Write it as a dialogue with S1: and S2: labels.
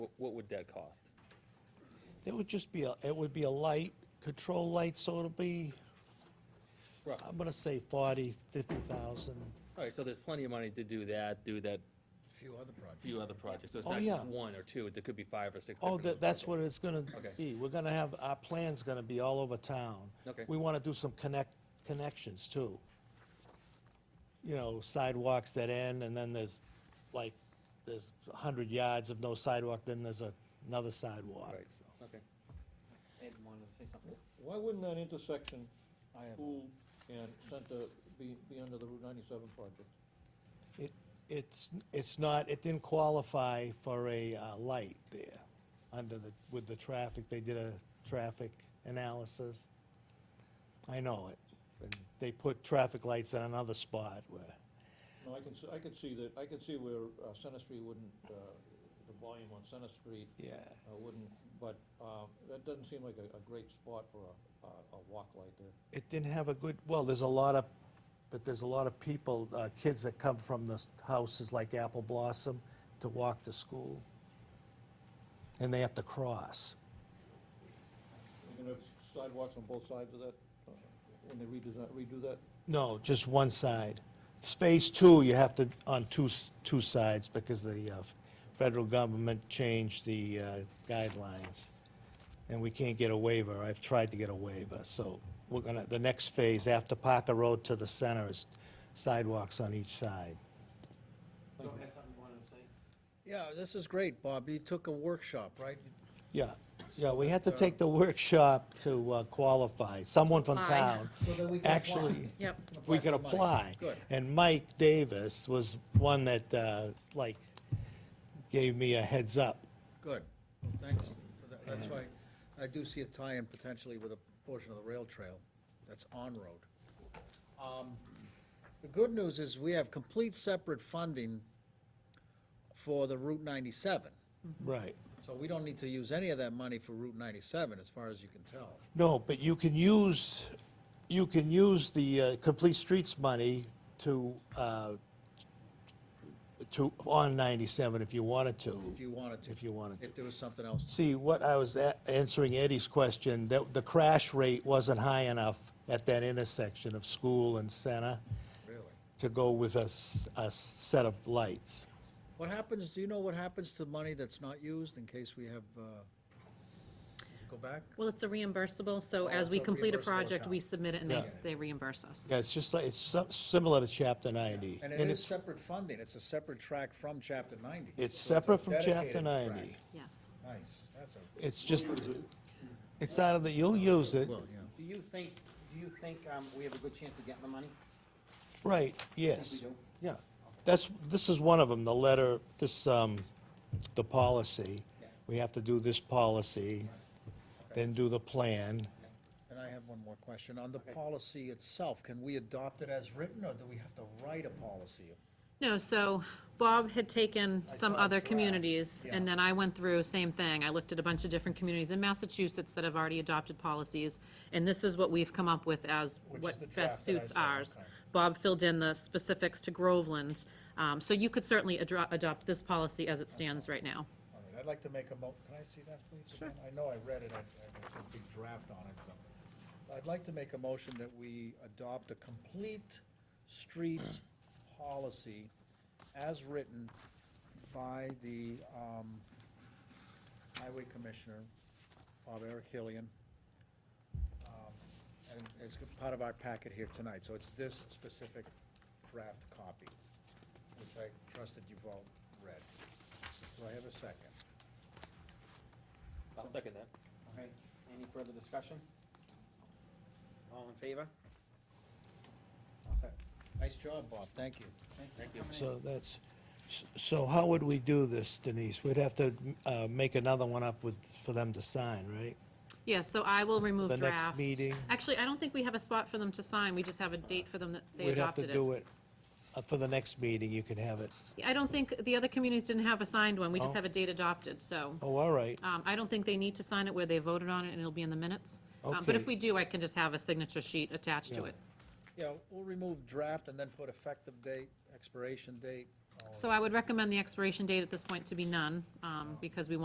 S1: what would that cost?
S2: It would just be, a. it would be a light, control light, so it'll be,
S1: Roughly.
S2: I'm gonna say forty, fifty thousand.
S1: All right, so there's plenty of money to do that, do that
S3: Few other projects.
S1: few other projects. So it's
S2: Oh,
S1: not just
S2: yeah.
S1: one or two, there could be five or six
S2: Oh,
S1: different.
S2: that, that's what it's gonna
S1: Okay.
S2: be. We're gonna have, our plan's gonna be all over town.
S1: Okay.
S2: We wanna do some connect, connections too. You know, sidewalks that end, and then there's, like, there's a hundred yards of no sidewalk, then there's a- another sidewalk.
S1: Right, okay.
S4: Ed wanted to say something.
S5: Why wouldn't that intersection,
S3: I have-
S5: pool and center, be, be under the Route ninety-seven project?
S2: It, it's, it's not, it didn't qualify for a, uh, light there, under the, with the traffic, they did a traffic analysis. I know it, and they put traffic lights in another spot where,
S5: No, I can, s- I could see that, I could see where uh, Center Street wouldn't, uh, the volume on Center Street
S2: yeah,
S5: uh, wouldn't, but um, that doesn't seem like a, a great spot for a, a- a walk light there.
S2: it didn't have a good, well, there's a lot of, but there's a lot of people, uh, kids that come from the s- houses like Apple Blossom to walk to school. And they have to cross.
S5: You're gonna have sidewalks on both sides of that, uh, when they redesign, redo that?
S2: No, just one side. Space two, you have to, on two, s- two sides, because the uh, federal government changed the uh, guidelines, and we can't get a waiver. I've tried to get a waiver, so we're gonna, the next phase, after Parker Road to the center, is sidewalks on each side.
S4: Go ahead, something you wanted to say?
S3: Yeah, this is great, Bob. You took a workshop, right?
S2: Yeah, yeah, we had to take the workshop to uh, qualify, someone from
S6: Apply.
S2: town.
S3: So that we can apply.
S2: Actually,
S6: Yep.
S2: if we could apply.
S3: Good.
S2: And Mike Davis was one that, uh, like, gave me a heads up.
S3: Good. Thanks. for that. That's why I do see a tie-in potentially with a portion of the rail trail that's on-road. Um, The good news is we have complete separate funding for the Route 97.
S2: Right.
S3: So we don't need to use any of that money for Route 97, as far as you can tell.
S2: No, but you can use, you can use the uh, Complete Streets money to, uh, to, on 97 if you wanted to.
S3: If you wanted to.
S2: If you wanted to.
S3: If there was something else.
S2: See, what I was a- answering Eddie's question, that the crash rate wasn't high enough at that intersection of school and center
S3: Really?
S2: to go with a, s- a set of lights.
S3: What happens, do you know what happens to money that's not used in case we have, uh, go back?
S6: Well, it's a reimbursable, so as we
S3: Oh, it's a
S6: complete a
S3: reimbursable
S6: project, we
S3: account.
S6: submit it and they, s-
S2: Yeah.
S6: they reimburse us.
S2: Yeah, it's just like, it's so- similar to chapter 90.
S3: And it is
S2: it's-
S3: separate funding, it's a separate track from chapter ninety.
S2: It's
S3: So a
S2: separate from
S3: dedicated
S2: chapter
S3: track.
S2: 90.
S6: Yes.
S3: Nice, that's a,
S2: It's just, it's out of the, you'll use it,
S3: well, yeah.
S4: Do you think, do you think um, we have a good chance of getting the money?
S2: right,
S4: I think
S2: yes.
S4: we do.
S2: Yeah, that's, this is one of them, the letter, this, um, the policy.
S4: Yeah.
S2: We have to do this policy, then do the plan.
S3: And I have one more question. On the
S4: Okay.
S3: policy itself, can we adopt it as written, or do we have to write a policy?
S6: No, so Bob had taken some
S3: saw a
S6: other
S3: draft,
S6: communities, and
S3: yeah.
S6: then I went through, same thing. I looked at a bunch of different communities in Massachusetts that have already adopted policies, and this is what we've come up with as
S3: Which is
S6: what
S3: the draft
S6: best
S3: that I
S6: suits
S3: saw,
S6: ours.
S3: okay.
S6: Bob filled in the specifics to Groveland, um, so you could certainly adro- adopt this policy as it stands right now.
S3: All right, I'd like to make a mo, can I see that, please? Sure. I know I read it, I, I got some big draft on it, so. I'd like to make a motion that we adopt a complete streets policy as written by the, um, Highway Commissioner, Bob Eric Hillian. Um, And it's part of our packet here tonight, so it's this specific draft copy, which I trust that you've all read. Do I have a second?
S1: I'll second that.
S4: Okay, any further discussion? All in favor? All set.
S3: Nice job, Bob, thank you.
S4: Thank you. for coming in.
S2: So that's, so how would we do this, Denise? We'd have to, uh, make another one up with, for them to sign, right?
S6: Yeah, so I will remove
S2: The
S6: draft.
S2: next meeting.
S6: Actually, I don't think we have a spot for them to sign, we just have a date for them that they
S2: We'd have
S6: adopted
S2: to
S6: it.
S2: do it, uh, for the next meeting, you can have it.
S6: I don't think, the other communities didn't have a signed one, we
S2: Oh.
S6: just have a date adopted, so,
S2: Oh, all right,
S6: um, I don't think they need to sign it where they voted on it, and it'll be in the minutes. Um, But
S2: Okay.
S6: if we do, I can just have a signature sheet attached to
S2: Yeah.
S6: it.
S3: Yeah, we'll remove draft and then put effective date, expiration date. all of
S6: So I would recommend the expiration date at this point to be none, um, because we want